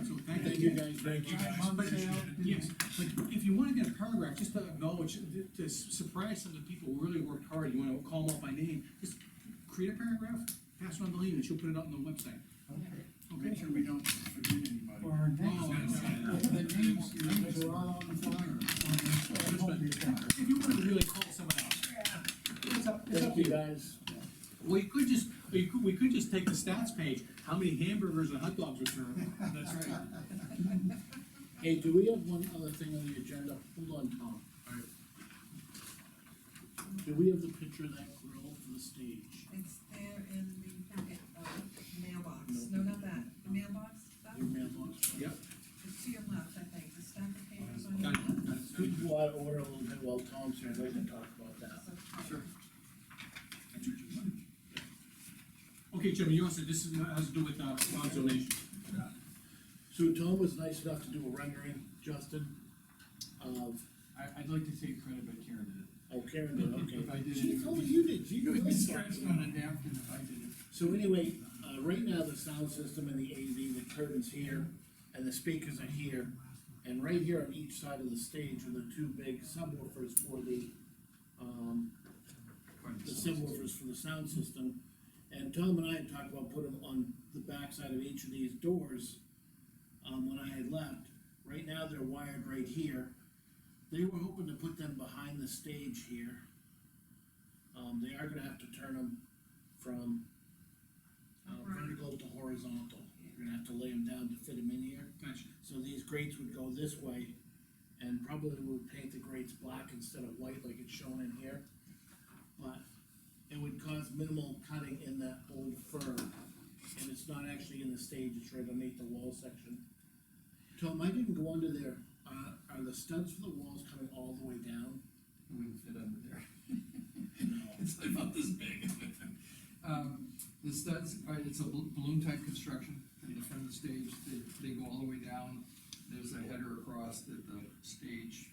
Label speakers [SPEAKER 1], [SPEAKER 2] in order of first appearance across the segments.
[SPEAKER 1] you guys.
[SPEAKER 2] Thank you guys,
[SPEAKER 1] But,
[SPEAKER 2] appreciate it.
[SPEAKER 1] yes, but if you wanna get a paragraph, just to acknowledge, to- to surprise some of the people who really worked hard, you wanna call them out by name, just create a paragraph, pass it on to Lean, and she'll put it up on the website.
[SPEAKER 3] Okay.
[SPEAKER 1] Okay?
[SPEAKER 3] Make sure we don't forget anybody.
[SPEAKER 4] For our next,
[SPEAKER 1] Oh, yeah.
[SPEAKER 4] the names, the names are all on the flyer. on this, uh, home page.
[SPEAKER 1] If you wanted to really call someone out, it's up, it's up
[SPEAKER 5] Thank
[SPEAKER 1] to
[SPEAKER 5] you
[SPEAKER 1] you.
[SPEAKER 5] guys.
[SPEAKER 1] Well, you could just, you could, we could just take the stats page, how many hamburgers and hot dogs were served.
[SPEAKER 2] That's right.
[SPEAKER 5] Hey, do we have one other thing on the agenda? Hold on, Tom.
[SPEAKER 2] Alright.
[SPEAKER 5] Do we have the picture of that grill for the stage?
[SPEAKER 6] It's there in the packet, uh, mailbox, no, not that, the mailbox stuff,
[SPEAKER 5] Your mailbox?
[SPEAKER 1] Yep.
[SPEAKER 6] it's to your left, I think, the stack of papers on your
[SPEAKER 1] Got it.
[SPEAKER 6] left.
[SPEAKER 5] Could you go out of order a little bit while Tom's here? I'd like to talk about that.
[SPEAKER 6] So-
[SPEAKER 2] Sure.
[SPEAKER 1] Okay, Jimmy, you also, this is, has to do with, uh, Ron's donation.
[SPEAKER 5] So Tom was nice enough to do a rendering, Justin, of,
[SPEAKER 3] I, I'd like to take credit, but Karen did it.
[SPEAKER 5] oh, Karen did,
[SPEAKER 3] If I
[SPEAKER 5] okay.
[SPEAKER 3] did it.
[SPEAKER 5] She
[SPEAKER 3] it
[SPEAKER 5] told
[SPEAKER 3] would
[SPEAKER 5] me
[SPEAKER 3] be-
[SPEAKER 5] you did,
[SPEAKER 3] It
[SPEAKER 5] you
[SPEAKER 3] would
[SPEAKER 5] did
[SPEAKER 3] be
[SPEAKER 5] something.
[SPEAKER 3] scratched on a napkin if I did it.
[SPEAKER 5] So anyway, uh, right now, the sound system and the AV, the curtains here, and the speakers are here. And right here on each side of the stage are the two big subwoofers for the, um, the subwoofers for the sound system. And Tom and I had talked about putting them on the backside of each of these doors, um, when I had left. Right now, they're wired right here. They were hoping to put them behind the stage here. Um, they are gonna have to turn them from uh, vertical to horizontal. You're gonna have to lay them down to fit them in here.
[SPEAKER 1] Gotcha.
[SPEAKER 5] So these grates would go this way, and probably would paint the grates black instead of white like it's shown in here. But it would cause minimal cutting in that old fur, and it's not actually in the stage, it's right underneath the wall section. Tom, I didn't go under there, uh, are the studs for the walls coming all the way down?
[SPEAKER 3] It wouldn't fit under there.
[SPEAKER 5] No.
[SPEAKER 3] It's about this big. Um, the studs, all right, it's a bal- balloon type construction, in the front of the stage, they, they go all the way down. There's a header across that the stage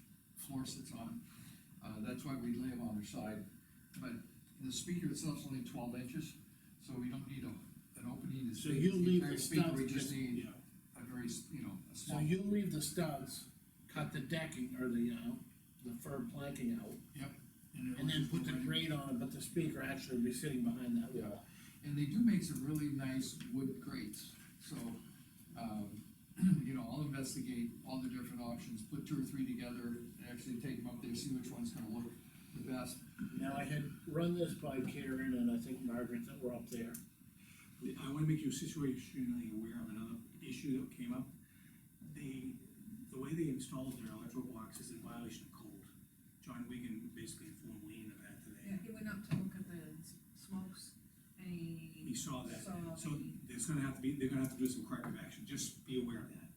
[SPEAKER 3] floor sits on. Uh, that's why we lay them on their side, but the speaker itself's only twelve inches, so we don't need a, an opening. to
[SPEAKER 5] So
[SPEAKER 3] speak-
[SPEAKER 5] you'll leave
[SPEAKER 3] entire
[SPEAKER 5] the
[SPEAKER 3] speaker,
[SPEAKER 5] studs
[SPEAKER 3] We just
[SPEAKER 5] just-
[SPEAKER 3] need
[SPEAKER 5] yeah.
[SPEAKER 3] a very, s- you know, a
[SPEAKER 5] So
[SPEAKER 3] small.
[SPEAKER 5] you leave the studs, cut the decking, or the, uh, the fur planking out,
[SPEAKER 3] Yep.
[SPEAKER 5] And then put the
[SPEAKER 3] it'll-
[SPEAKER 5] grate on, but the speaker actually would be sitting behind that wall.
[SPEAKER 3] And they do make some really nice wood grates, so, um, you know, I'll investigate all the different options, put two or three together, and actually take them up there, see which one's gonna look the best.
[SPEAKER 5] Now, I had run this by Karen and I think Margaret that were up there.
[SPEAKER 2] I wanna make you situationally aware of another issue that came up. They, the way they installed their electrical box is in violation of code. John Wigan basically informed Lean of that today.
[SPEAKER 6] Yeah, he went up to look at the s- smokes, and he
[SPEAKER 2] He saw that,
[SPEAKER 6] saw
[SPEAKER 2] so
[SPEAKER 6] the-
[SPEAKER 2] there's gonna have to be, they're gonna have to do some corrective action, just be aware of that.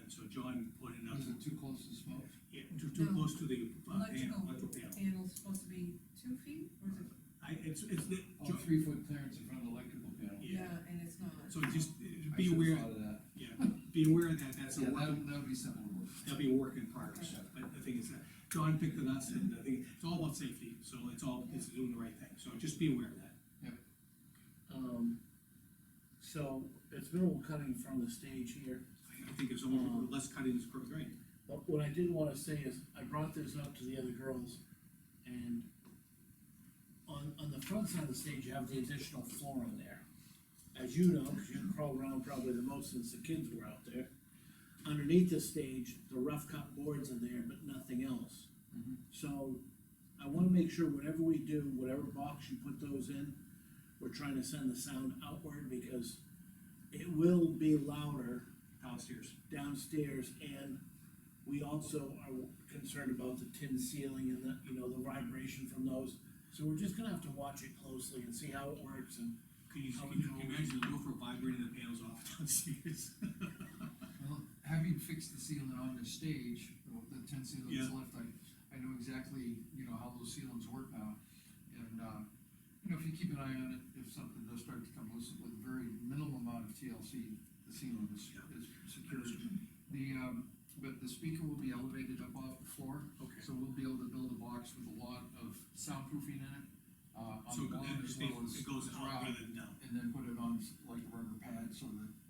[SPEAKER 2] And so John pointed out,
[SPEAKER 3] Is it too close to smoke?
[SPEAKER 2] yeah, too, too
[SPEAKER 6] No.
[SPEAKER 2] close to the, uh, panel,
[SPEAKER 6] Electrical.
[SPEAKER 2] electrical panel.
[SPEAKER 6] panel's supposed to be two feet, or is it?
[SPEAKER 2] I, it's, it's, the-
[SPEAKER 3] Oh,
[SPEAKER 2] Jo-
[SPEAKER 3] three foot clearance in front of the electrical panel.
[SPEAKER 2] yeah,
[SPEAKER 6] And it's not.
[SPEAKER 2] so just uh,
[SPEAKER 3] I
[SPEAKER 2] be
[SPEAKER 3] should've
[SPEAKER 2] aware,
[SPEAKER 3] thought of that.
[SPEAKER 2] yeah, be aware of that, that's a
[SPEAKER 3] Yeah,
[SPEAKER 2] work,
[SPEAKER 3] that, that would be simple to work.
[SPEAKER 2] that'll be a work in progress,
[SPEAKER 3] Okay.
[SPEAKER 2] but the thing is that, John picked it up, and I think, it's all about safety, so it's all, it's doing the right thing, so just be aware of that.
[SPEAKER 5] Um, so it's minimal cutting from the stage here.
[SPEAKER 2] I- I think it's only,
[SPEAKER 5] Um,
[SPEAKER 2] less cutting is great, great.
[SPEAKER 5] But what I did wanna say is, I brought this up to the other girls, and on, on the front side of the stage, you have the additional floor on there. As you know, cause you crawled around probably the most since the kids were out there. Underneath the stage, the rough cut boards are there, but nothing else.
[SPEAKER 3] Mhm.
[SPEAKER 5] So, I wanna make sure whatever we do, whatever box you put those in, we're trying to send the sound outward, because it will be louder
[SPEAKER 2] downstairs.
[SPEAKER 5] downstairs, and we also are concerned about the tin ceiling and the, you know, the vibration from those. So we're just gonna have to watch it closely and see how it works, and
[SPEAKER 2] Can you,
[SPEAKER 5] How
[SPEAKER 2] can you
[SPEAKER 5] we go-
[SPEAKER 2] imagine the roof vibrating the panels off downstairs?
[SPEAKER 3] Well, having fixed the ceiling on the stage, the ten ceiling that's
[SPEAKER 2] Yeah.
[SPEAKER 3] left, I, I know exactly, you know, how those ceilings work now. And, uh, you know, if you keep an eye on it, if something does start to come loose with very minimal amount of TLC, the ceiling is, is secured. The, um, but the speaker will be elevated up off the floor,
[SPEAKER 2] Okay.
[SPEAKER 3] so we'll be able to build a box with a lot of soundproofing in it, uh, on
[SPEAKER 2] So
[SPEAKER 3] the bottom
[SPEAKER 2] it
[SPEAKER 3] as
[SPEAKER 2] stays,
[SPEAKER 3] well as.
[SPEAKER 2] it goes
[SPEAKER 3] as
[SPEAKER 2] out
[SPEAKER 3] round
[SPEAKER 2] rather than down.
[SPEAKER 3] and then put it on s- like a rubber pad so that